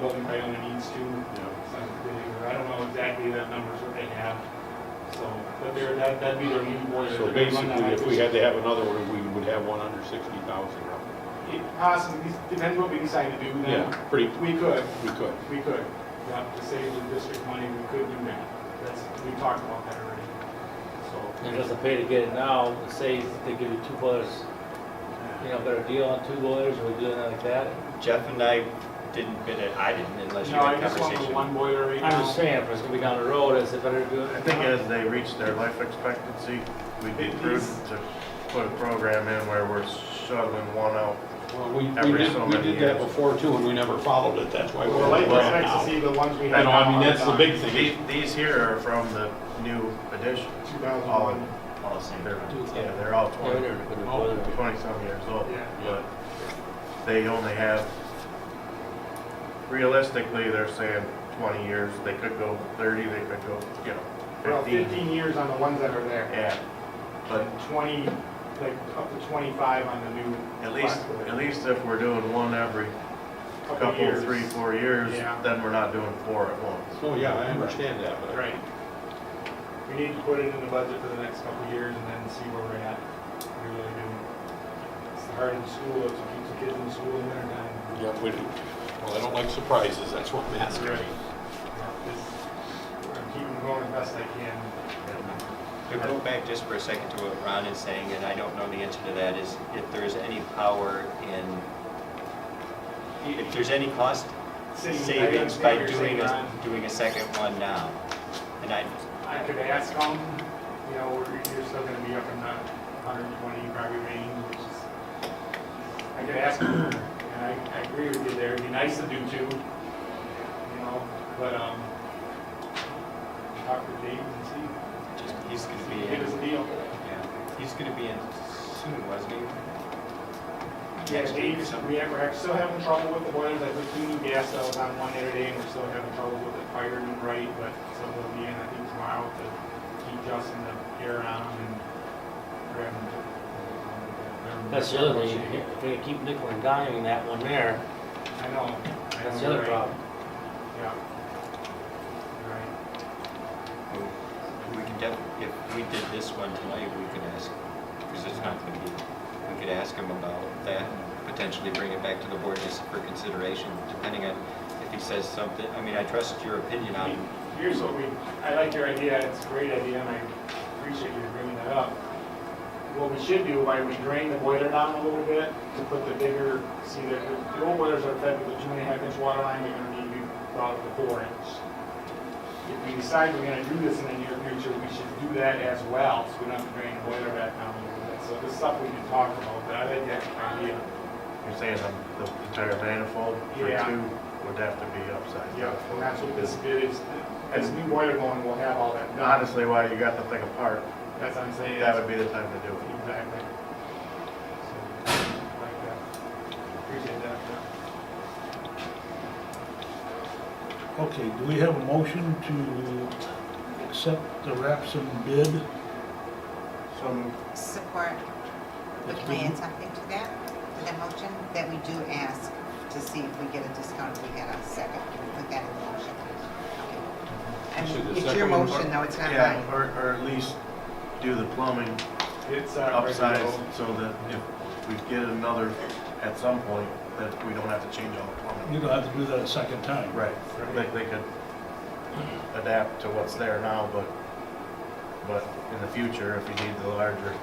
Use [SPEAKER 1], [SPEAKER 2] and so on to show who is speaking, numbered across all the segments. [SPEAKER 1] what we might only needs to. So, I don't know exactly that numbers what they have, so, but they're, that- that'd be their lead boiler.
[SPEAKER 2] So
[SPEAKER 1] They're gonna run
[SPEAKER 2] basically,
[SPEAKER 1] that
[SPEAKER 2] if we
[SPEAKER 1] high
[SPEAKER 2] had to have another one, we would have one under sixty thousand roughly.
[SPEAKER 1] pressure. It Possibly, depends what we decide to do then.
[SPEAKER 2] Yeah, pretty,
[SPEAKER 1] We could,
[SPEAKER 2] we could.
[SPEAKER 1] we could, yeah, to save the district money, we could do that. That's, we talked about that already, so.
[SPEAKER 3] And just pay to get it now, say they give you two boilers, you know, better deal on two boilers, or we do it like that.
[SPEAKER 4] Jeff and I didn't bid it, I didn't unless you
[SPEAKER 1] No, I
[SPEAKER 4] had a
[SPEAKER 1] just want the
[SPEAKER 4] conversation.
[SPEAKER 1] one boiler right now.
[SPEAKER 3] I'm just saying, if it's gonna be down the road, is it better to do it?
[SPEAKER 5] I think as they reach their life expectancy, we'd be prudent to put a program in where we're shuttling one out.
[SPEAKER 2] Well, we, we
[SPEAKER 5] Every
[SPEAKER 2] did,
[SPEAKER 5] so
[SPEAKER 2] we
[SPEAKER 5] many
[SPEAKER 2] did that
[SPEAKER 5] years.
[SPEAKER 2] before too, and we never followed it, that's why. we're
[SPEAKER 1] Well, like,
[SPEAKER 2] where we're at
[SPEAKER 1] expect to
[SPEAKER 2] now.
[SPEAKER 1] see the ones we
[SPEAKER 2] I
[SPEAKER 1] had.
[SPEAKER 2] know, I mean,
[SPEAKER 1] now
[SPEAKER 2] that's the
[SPEAKER 1] on.
[SPEAKER 2] big
[SPEAKER 5] These,
[SPEAKER 2] thing.
[SPEAKER 5] these here are from the new edition.
[SPEAKER 1] 2001.
[SPEAKER 4] All the same.
[SPEAKER 5] They're, yeah, they're all
[SPEAKER 3] Yeah, we
[SPEAKER 5] twenty,
[SPEAKER 3] never put a boiler.
[SPEAKER 5] twenty-some years old,
[SPEAKER 1] Yeah.
[SPEAKER 5] but they only have, realistically, they're saying twenty years, they could go thirty, they could go, you know,
[SPEAKER 1] Well,
[SPEAKER 5] fifteen.
[SPEAKER 1] 15 years on the ones that are there,
[SPEAKER 5] Yeah, but
[SPEAKER 1] and 20, like up to 25 on the new.
[SPEAKER 5] At least,
[SPEAKER 1] platform.
[SPEAKER 5] at least if we're doing one every
[SPEAKER 1] Couple
[SPEAKER 5] couple,
[SPEAKER 1] years.
[SPEAKER 5] three, four years,
[SPEAKER 1] Yeah.
[SPEAKER 5] then we're not doing four at once.
[SPEAKER 2] Oh, yeah, I understand that, but.
[SPEAKER 1] Right. We need to put it in the budget for the next couple of years and then see where we're at. We really do. It's hard in school, if you keep the kids in school in there, then
[SPEAKER 2] Yeah, we do. Well, I don't like surprises, that's what I'm asking.
[SPEAKER 1] Right. yeah, it's- I'm keeping going as best I can.
[SPEAKER 4] To go back just for a second to what Ron is saying, and I don't know the answer to that, is if there's any power in, if there's any cost
[SPEAKER 1] City, I
[SPEAKER 4] savings
[SPEAKER 1] understand
[SPEAKER 4] by
[SPEAKER 1] you're saying,
[SPEAKER 4] doing a,
[SPEAKER 1] Ron.
[SPEAKER 4] doing a second one now. And I,
[SPEAKER 1] I could ask them, you know, we're- you're still gonna be up in the hundred and twenty probably range, which is, I could ask them, and I, I agree with you there, it'd be nice to do two, you know, but, um, talk with Dave and see,
[SPEAKER 4] just, he's gonna be
[SPEAKER 1] give us
[SPEAKER 4] in,
[SPEAKER 1] a deal.
[SPEAKER 4] yeah, he's gonna be in soon, wasn't he?
[SPEAKER 1] Yeah,
[SPEAKER 4] Next week or
[SPEAKER 1] Dave,
[SPEAKER 4] something.
[SPEAKER 1] we have, we're still having trouble with the boilers, I put two new gas cells on one the other day, and we're still having trouble with it firing right, but so we'll be in, I think, tomorrow to keep Justin the air on and um, grab him. to-
[SPEAKER 3] That's the other thing, if they keep nickel and diming that one there,
[SPEAKER 1] I know. I
[SPEAKER 3] that's
[SPEAKER 1] know,
[SPEAKER 3] the other
[SPEAKER 1] right.
[SPEAKER 3] problem.
[SPEAKER 1] Yeah. Right.
[SPEAKER 4] We can def, if we did this one tonight, we could ask, because it's not gonna be, we could ask him about that, and potentially bring it back to the board just for consideration, depending on if he says something, I mean, I trust your opinion
[SPEAKER 1] I
[SPEAKER 4] on
[SPEAKER 1] mean, Um, Here's what we, I like your idea, it's a great idea, and I appreciate you bringing that up. What we should do, why we drain the boiler down a little bit, to put the bigger, see, the, the old boilers are fed with a two and a half inch water line, they're gonna need to be brought up to four inch. If we decide we're gonna do this in the near future, we should do that as well, so we don't have to drain the boiler back down a little bit. So this stuff we can talk about, but I like that idea.
[SPEAKER 5] You're saying the the entire manifold for
[SPEAKER 1] Yeah.
[SPEAKER 5] two would have to be upside
[SPEAKER 1] Yeah,
[SPEAKER 5] down.
[SPEAKER 1] and that's what this bid is, as new boiler going, we'll have all that done.
[SPEAKER 5] Honestly, while you got the thing apart,
[SPEAKER 1] That's what I'm saying.
[SPEAKER 5] that would be the time to do it.
[SPEAKER 1] Exactly. So, like that. Appreciate that. uh,
[SPEAKER 6] Okay, do we have a motion to accept the Rapsin bid?
[SPEAKER 5] So
[SPEAKER 7] Support. But can I add something to that, to the motion? That we do ask to see if we get a discount if we get a second. Can we put that in the motion? Okay. I
[SPEAKER 2] Should
[SPEAKER 7] mean,
[SPEAKER 2] the
[SPEAKER 7] It's your
[SPEAKER 2] second one-
[SPEAKER 7] motion, though, it's not
[SPEAKER 5] Yeah,
[SPEAKER 7] mine.
[SPEAKER 5] or, or at least do the plumbing
[SPEAKER 1] It's uh, regular-
[SPEAKER 5] upsized so that if we get another at some point, that we don't have to change all the plumbing.
[SPEAKER 6] You don't have to do that a second time.
[SPEAKER 5] Right, like they could adapt to what's there now, but, but in the future, if you need the larger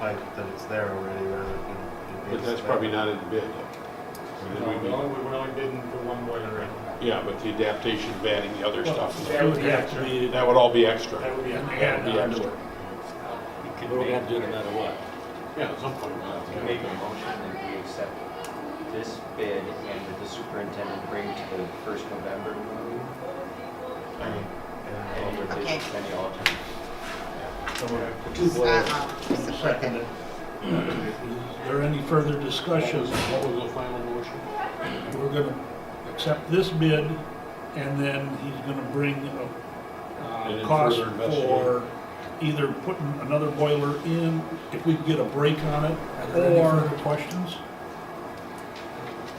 [SPEAKER 5] pipe, that it's there already rather than. it being
[SPEAKER 2] But that's
[SPEAKER 5] set.
[SPEAKER 2] probably not in the bid.
[SPEAKER 1] No,
[SPEAKER 2] And then
[SPEAKER 1] we
[SPEAKER 2] we'd
[SPEAKER 1] only, we're only bidding for one boiler right now.
[SPEAKER 2] be- Yeah, but the adaptation of adding the other stuff,
[SPEAKER 6] It would have to be,
[SPEAKER 2] that would all be extra.
[SPEAKER 1] That would be.
[SPEAKER 2] That would be extra.
[SPEAKER 4] it. We
[SPEAKER 3] But
[SPEAKER 4] could
[SPEAKER 3] we're gonna
[SPEAKER 4] make-
[SPEAKER 3] have to do it no matter what.
[SPEAKER 2] Yeah, at some point we'll have to.
[SPEAKER 4] We
[SPEAKER 2] do
[SPEAKER 4] can
[SPEAKER 2] it.
[SPEAKER 4] make a motion that we accept this bid and that the superintendent bring to the first November
[SPEAKER 5] I mean,
[SPEAKER 4] any
[SPEAKER 5] and
[SPEAKER 4] of
[SPEAKER 7] Okay.
[SPEAKER 4] the, any alternate.
[SPEAKER 6] someone
[SPEAKER 7] Uh-uh, Support
[SPEAKER 6] second
[SPEAKER 7] that.
[SPEAKER 6] it. Is there any further
[SPEAKER 2] What
[SPEAKER 6] discussion?
[SPEAKER 2] was, what was the final motion?
[SPEAKER 6] We're gonna accept this bid, and then he's gonna bring a
[SPEAKER 2] And
[SPEAKER 6] uh,
[SPEAKER 2] then
[SPEAKER 6] cost
[SPEAKER 2] further investigate.
[SPEAKER 6] for either putting another boiler in, if we can get a break on it,
[SPEAKER 8] Are there any
[SPEAKER 6] or
[SPEAKER 8] further questions?